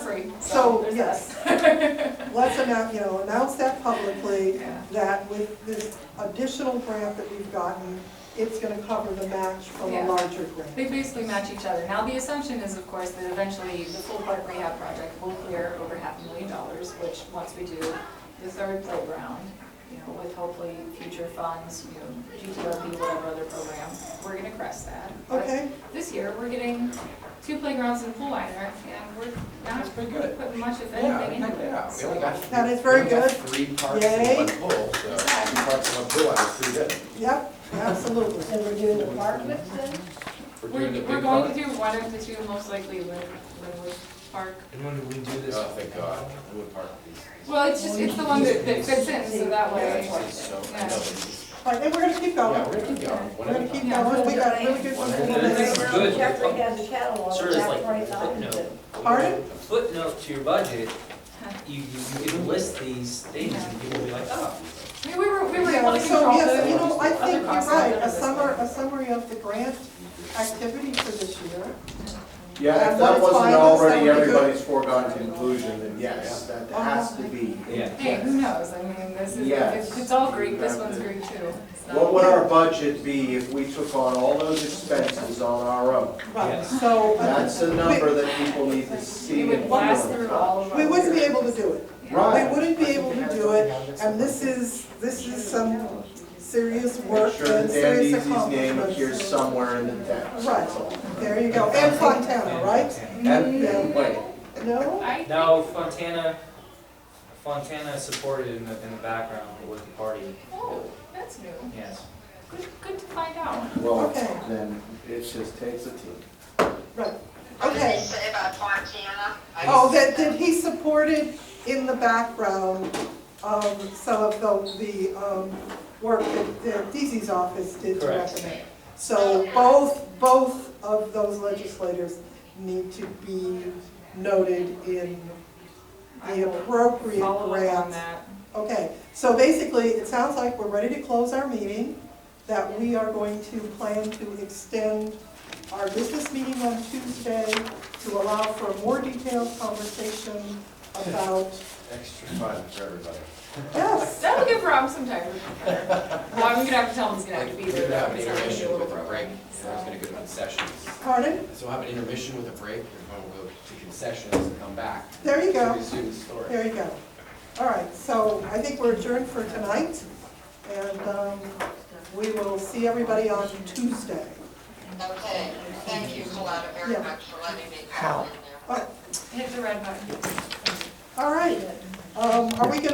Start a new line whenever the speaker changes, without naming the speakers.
agree.
So,
Oh, there's
yes.
that.
Let's announce, you know, announce that publicly,
Yeah.
that with this additional grant that we've gotten, it's gonna cover the match from a
Yeah.
larger grant.
They basically match each other. Now, the assumption is, of course, that eventually the full park rehab project will clear over half a million dollars, which, once we do the third playground, you know, with hopefully future funds, you know, GTRP, whatever other program, we're gonna crest that. But
Okay,
This year, we're getting two playgrounds and a pool liner, and we're
That's
not
pretty good.
putting much of
Yeah,
anything
yeah,
into it.
we only
so-
got.
That is very
we only got
good.
Three parts and
Yay.
one pool, so two parts and one pool, that's pretty good.
yep, absolutely.
And we're doing the park with them?
doing the
We're, we're
big
going
part.
to do one of the two, most likely Lynn, Linwood Park.
And when did we do this?
Oh, thank God, the wood part is.
Well, it's just, it's the one that, that fits in, so that
Yeah,
way.
it's just so, I know, but it's-
Right, and we're gonna keep
yeah, we're
going,
gonna keep going.
we're
One at a
gonna keep
time.
Yeah.
going, we got really good
One
ones.
at a
in
time.
This
there.
is good.
Jeffrey has a catalog,
Sure,
that's
it's like
right,
footnote.
Pardon?
Footnote to your budget, you, you, you can list these things and people will be like, oh.
I mean, we were, we were
Yeah,
able to
so,
control
yes,
the-
you know, I
other
think you're
costs
right,
under
a
this
summary,
one.
a summary of the grant activity for this year.
Yeah,
And
if
when
that
it's
wasn't
financed, that
already
would be good.
everybody's foregone conclusion, then yes, that has to be.
Yeah.
Hey, who knows, I mean, this is,
Yes.
it's, it's all Greek, this one's Greek too. so-
What would our budget be if we took on all those expenses on our own?
Right,
Yes.
so. uh,
That's a
we-
number that people need to
We
see.
would
and
blast
feel.
through all of our.
We wouldn't be able to do it,
Yeah.
we
Right.
wouldn't be able to do it, and this is, this is some serious work
Make sure
and
that Dan
serious
Deasy's name appears
accomplishments.
somewhere in the text,
Right,
that's all.
there you go, and Fontana, right?
Fontana.
And, and wait,
No?
I think-
No, Fontana, Fontana supported in the, in the background with the party,
Oh, that's new,
yes.
good, good to find out.
well,
Okay.
then it just takes a team.
Right,
What did they
okay.
say about Fontana? I
Oh,
just-
that, that he supported in the background, um, some of the, the, um, work that, that DC's office did to
Correct.
recommend. So both, both of those legislators need to be noted in
I
the
will
appropriate
Follow up on
grants.
that.
Okay, so basically, it sounds like we're ready to close our meeting, that we are going to plan to extend our business meeting on Tuesday to allow for a more detailed conversation about,
Extra fun for everybody.
yes,
That'll give Rob some time to prepare. Well, I'm gonna have to tell him he's gonna have to be
We're
there.
gonna have an
It's not gonna be a
intermission
little
with a break,
program,
so it's gonna go to concessions.
pardon?
So we'll have an intermission with a break, and then we'll go to concessions and come back.
There you
to
go,
Resume the story.
there you go. All right, so I think we're adjourned for tonight, and, um, we will see everybody on Tuesday.
Okay, thank you, Coletta, very
Yeah.
much for letting me come in there.
Oh,
so- Hit the red button.
All right, um, are we gonna